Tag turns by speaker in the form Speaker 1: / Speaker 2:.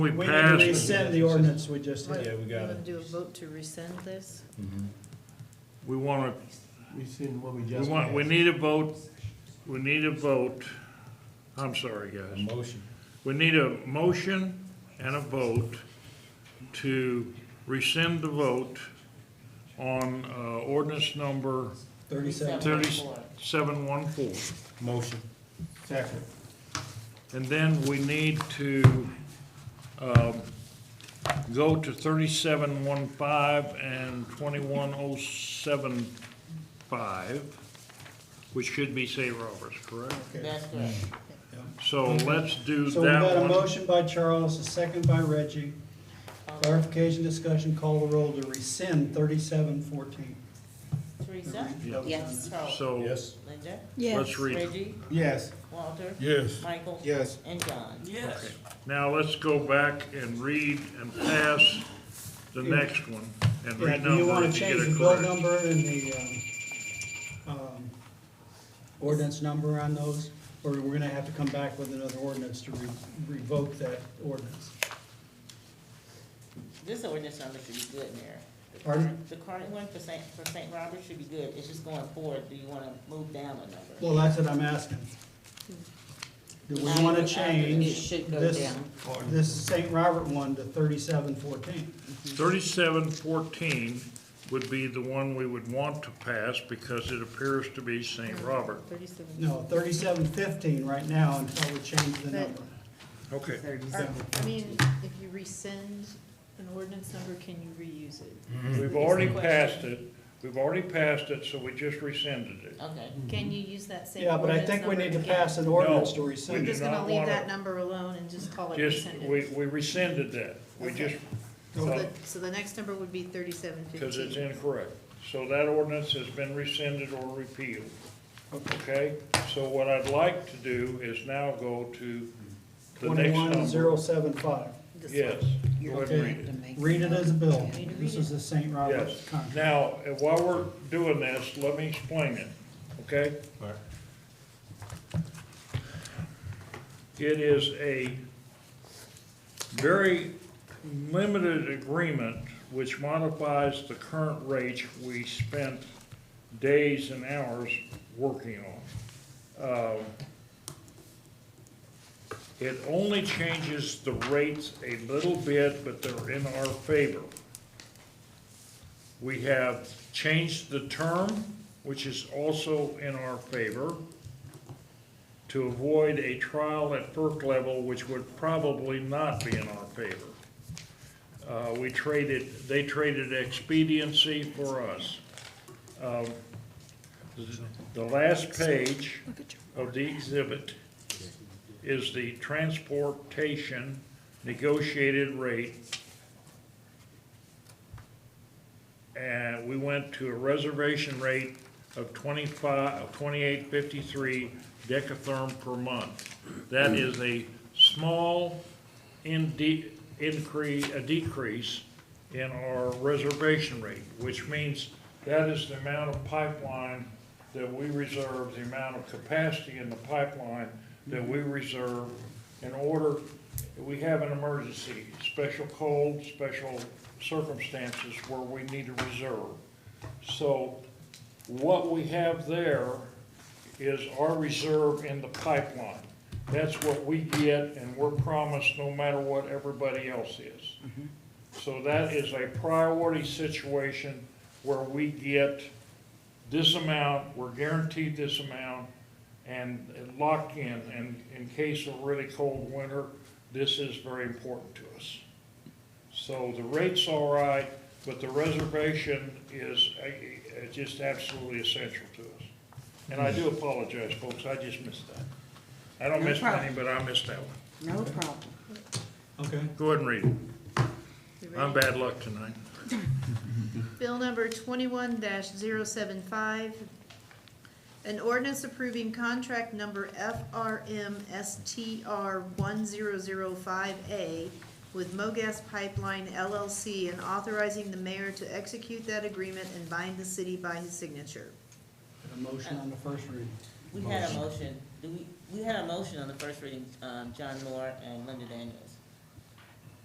Speaker 1: We
Speaker 2: We need to
Speaker 1: passed,
Speaker 2: rescind the ordinance we just had.
Speaker 3: Yeah, we got
Speaker 4: to
Speaker 3: it.
Speaker 4: Do a vote to rescind this?
Speaker 1: we wanna,
Speaker 3: We seen what we
Speaker 1: we
Speaker 3: just.
Speaker 1: want, we
Speaker 3: passed.
Speaker 1: need a vote, we need a vote. I'm sorry,
Speaker 3: A
Speaker 1: guys.
Speaker 3: motion.
Speaker 1: We need a motion and a vote to rescind the vote on, uh, ordinance number
Speaker 2: Thirty-seven.
Speaker 1: thirty-seven one four.
Speaker 3: Motion. Second.
Speaker 1: And then we need to, um, go to thirty-seven one five and twenty-one oh seven five, which should be St. Roberts, correct?
Speaker 2: Okay.
Speaker 1: Mm-hmm. So let's do
Speaker 2: So we've got a
Speaker 1: that one.
Speaker 2: motion by Charles, a second by Reggie. Clarification, discussion, call the roll to rescind thirty-seven fourteen.
Speaker 5: Teresa? Yes. Charles?
Speaker 1: So
Speaker 3: Yes.
Speaker 5: Linda?
Speaker 1: let's read. it.
Speaker 5: Reggie?
Speaker 3: Yes.
Speaker 5: Walter?
Speaker 3: Yes.
Speaker 5: Michael?
Speaker 3: Yes.
Speaker 5: And John?
Speaker 1: Okay. Now let's go back and read and pass the next one and
Speaker 2: Yeah, do you
Speaker 1: renumber
Speaker 2: wanna
Speaker 1: if you
Speaker 2: change
Speaker 1: get
Speaker 2: the
Speaker 1: a
Speaker 2: bill
Speaker 1: clear.
Speaker 2: number and the, um, um, ordinance number on those? Or we're gonna have to come back with another ordinance to re- revoke that ordinance?
Speaker 5: This ordinance number should be good, Mayor. The
Speaker 2: Pardon?
Speaker 5: current- The current one for Saint, for Saint Robert should be good. It's just going forward. Do you wanna move down a number?
Speaker 2: Well, that's what I'm asking. Do we wanna change this, this St. Robert one to thirty-seven fourteen?
Speaker 1: Thirty-seven fourteen would be the one we would want to pass because it appears to be St.
Speaker 4: Mm-hmm.
Speaker 1: Robert.
Speaker 4: Thirty-seven.
Speaker 2: No, thirty-seven fifteen right now until we change the number.
Speaker 1: Okay.
Speaker 4: Or, I mean, if you rescind an ordinance number, can you reuse it?
Speaker 1: We've already passed it, we've already passed it, so we just rescinded it.
Speaker 5: Okay.
Speaker 4: Can you use that same
Speaker 2: Hmm. Yeah, but I
Speaker 4: ordinance number
Speaker 2: think we need to
Speaker 4: again?
Speaker 2: pass an ordinance to
Speaker 4: We're
Speaker 2: rescind it.
Speaker 4: just
Speaker 1: do
Speaker 4: gonna
Speaker 1: not
Speaker 4: leave
Speaker 1: wanna-
Speaker 4: that number alone and just call it
Speaker 1: Just, we,
Speaker 4: Oh, rescinded.
Speaker 1: we rescinded that, we just,
Speaker 4: So the, so the next number would be thirty-seven
Speaker 1: because it's
Speaker 4: fifteen.
Speaker 1: incorrect. So that ordinance has been rescinded or repealed,
Speaker 2: Okay.
Speaker 1: okay? So what I'd like to do is now go to the next
Speaker 2: Twenty-one zero
Speaker 1: number.
Speaker 2: seven five.
Speaker 1: Yes, go ahead and read it.
Speaker 2: Read it as a bill.
Speaker 4: Need to read
Speaker 2: This is the St. Robert
Speaker 1: Yes.
Speaker 2: contract.
Speaker 1: Now, and while we're doing this, let me explain it, okay?
Speaker 3: Alright.
Speaker 1: It is a very limited agreement which modifies the current rates we spent days and hours working on. Um, It only changes the rates a little bit, but they're in our favor. We have changed the term, which is also in our favor, to avoid a trial at FERC level, which would probably not be in our favor. Uh, we traded, they traded expediency for us. Um, th- The last page of the exhibit is the transportation negotiated rate and we went to a reservation rate of twenty-five, of twenty-eight fifty-three decatherm per month. That is a small inde- increase, a decrease in our reservation rate, which means that is the amount of pipeline that we reserve, the amount of capacity in the pipeline that we reserve in order, we have an emergency, special cold, special circumstances where we need to reserve. So what we have there is our reserve in the pipeline. That's what we get and we're promised no matter what everybody else is. So that is a priority situation where we get this amount, we're guaranteed this amount and locked in. And in case of really cold winter, this is very important to us. So the rate's all right, but the reservation is uh, uh, just absolutely essential to us. And I do apologize, folks, I just missed that. I don't
Speaker 6: Hmm. No
Speaker 1: miss
Speaker 6: problem.
Speaker 1: many, but I missed that one.
Speaker 6: No problem.
Speaker 2: Okay.
Speaker 1: Go ahead and read it.
Speaker 4: You
Speaker 1: I'm
Speaker 4: ready?
Speaker 1: bad luck tonight.
Speaker 4: Bill number twenty-one 75 An ordinance approving contract number FRM STR one zero zero five A with MoGas Pipeline LLC and authorizing the mayor to execute that agreement and bind the city by his signature.
Speaker 2: A motion on the first reading.
Speaker 5: We had a motion. Do we, we had a motion on the first reading, um, John Moore and Linda Daniels.